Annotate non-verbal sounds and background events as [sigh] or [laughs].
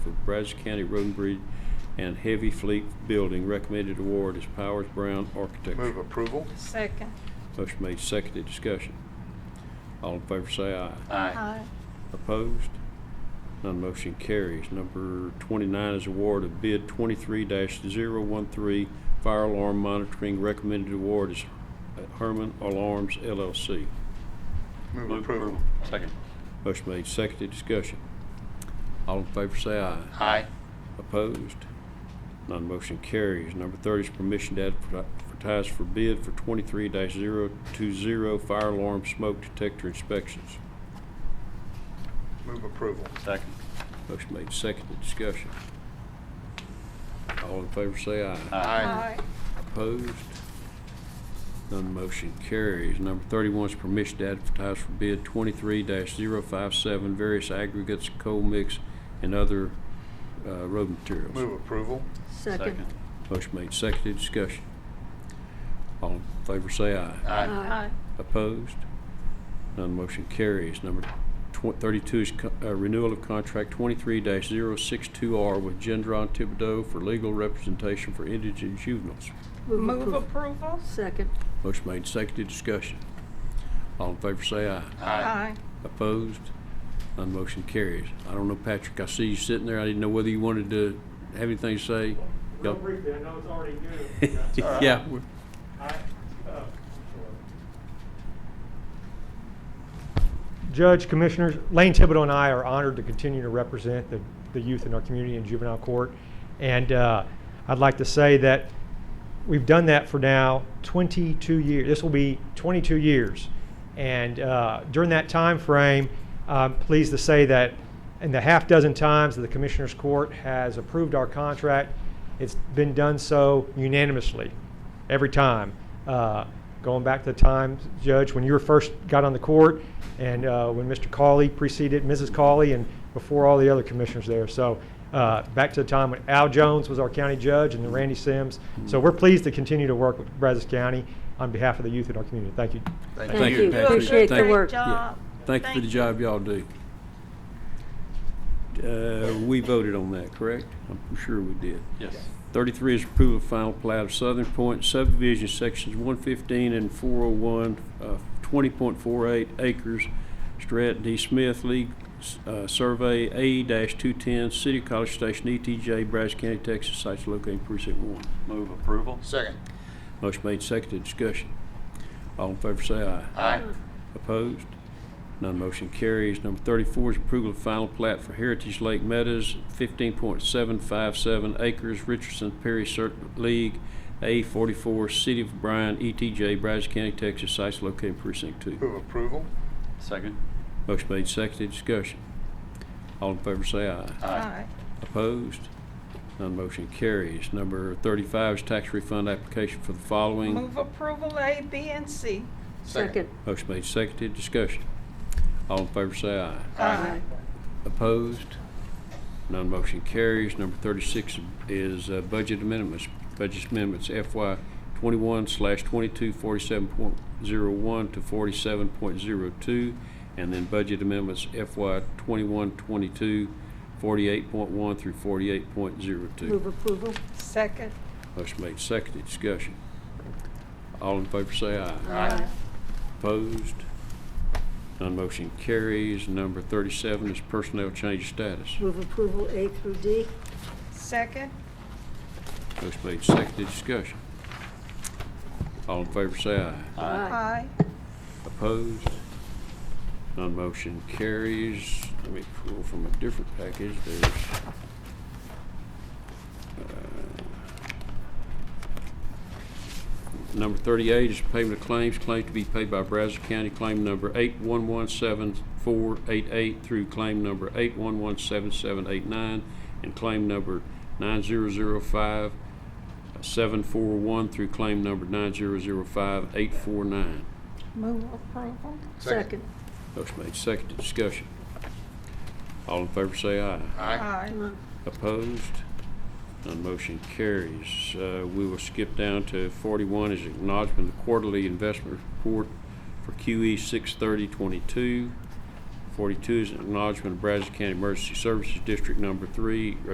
Brazos County Road and Bridge and Heavy Fleet Building. Recommended award is Powers Brown Move Architecture. approval. Second. Motion made, seconded, discussion. All in favor say aye. Aye. Opposed? None motion carries. Number 29 is award of bid 23-013 fire alarm monitoring. Recommended award is Herman Alarms LLC. Move approval. Second. Motion made, seconded, discussion. All in favor say aye. Aye. Opposed? None motion carries. Number 30 is permission to advertise for bid for 23-020 fire alarm smoke detector inspections. Move approval. Second. Motion made, seconded, discussion. All in favor say aye. Aye. Opposed? None motion carries. Number 31 is permission to advertise for bid 23-057, various aggregates, coal mix, and other uh, road materials. Move approval. Second. Motion made, seconded, discussion. All in favor say aye. Aye. Aye. Opposed? None motion carries. Number tw- 32 is co- uh, renewal of contract 23-062R with Gendron Thibodeau for legal representation for indigent juveniles. Move approval? Second. Motion made, seconded, discussion. All in favor say aye. Aye. Opposed? None motion carries. I don't know, Patrick, I see you sitting there. I didn't know whether you wanted to have anything to say. Real Yep. [laughs] briefly, I know it's already due. right. Yeah. we're- Judge, Commissioners, Lane Thibodeau and I are honored to continue to represent the, the youth in our community in juvenile court. And uh, I'd like to say that we've done that for now 22 years. This will be 22 years. And uh, during that time frame, I'm pleased to say that in the half dozen times that the Commissioners Court has approved our contract, it's been done so unanimously every time. Uh, going back to the time, Judge, when you were first got on the court, and uh, when Mr. Cawley preceded Mrs. Cawley, and before all the other commissioners there. So uh, back to the time when Al Jones was our county judge, and then Randy Sims. So we're pleased to continue to work with Brazos County on behalf of the youth in our community. Thank you. Thank you, Patrick. Patrick. Appreciate the Thank- work. yeah. job. Thank you for the Thank job y'all do. Uh, We voted on that, correct? I'm sure we did. Yes. Thirty-three is approval of final plat of Southern Point subdivision, sections one fifteen and four oh one, uh, twenty point four eight acres. Strat D. Smith League, uh, Survey A two ten, City of College Station, ETJ, Brazos County, Texas, sites located in precinct one. Move approval. Second. Motion made, seconded, discussion. All in favor say aye. Aye. Opposed? None motion carries. Number 34 is approval of final plat for Heritage Lake Meadows, 15.757 acres, Richardson Perry Circuit League, A44, City of Bryan, ETJ, Brazos County, Texas, sites located in precinct 2. Move approval. Second. Motion made, seconded, discussion. All in favor say aye. Aye. Opposed? None motion carries. Number 35 is tax refund application for the following. Move approval A, B, and C. Second. Motion made, seconded, discussion. All in favor say aye. Aye. Opposed? None motion carries. Number 36 is uh, budget amendments. Budget amendments FY 21 slash 22, 47.01 to 47.02, and then budget amendments FY 21, 22, 48.1 through Move 48.02. approval. Second. Motion made, seconded, discussion. All in favor say aye. Aye. Opposed? None motion carries. Number 37 is personnel change status. Move approval A through D. Second. Motion made, seconded, discussion. All in favor say aye. Aye. Opposed? None motion carries. Let me pull from a different package, there's... uh, Number 38 is payment of claims, claim to be paid by Brazos County, claim number 8117488 through claim number 8117789, and claim number 9005 741 through claim number 9005849. Move approval? Second. Motion made, seconded, discussion. All in favor say aye. Aye. Opposed? None motion carries. Uh, We will skip down to 41 is acknowledgement of quarterly investment report for E QE 63022. 42 is acknowledgement of Brazos County Emergency Services District Number 3,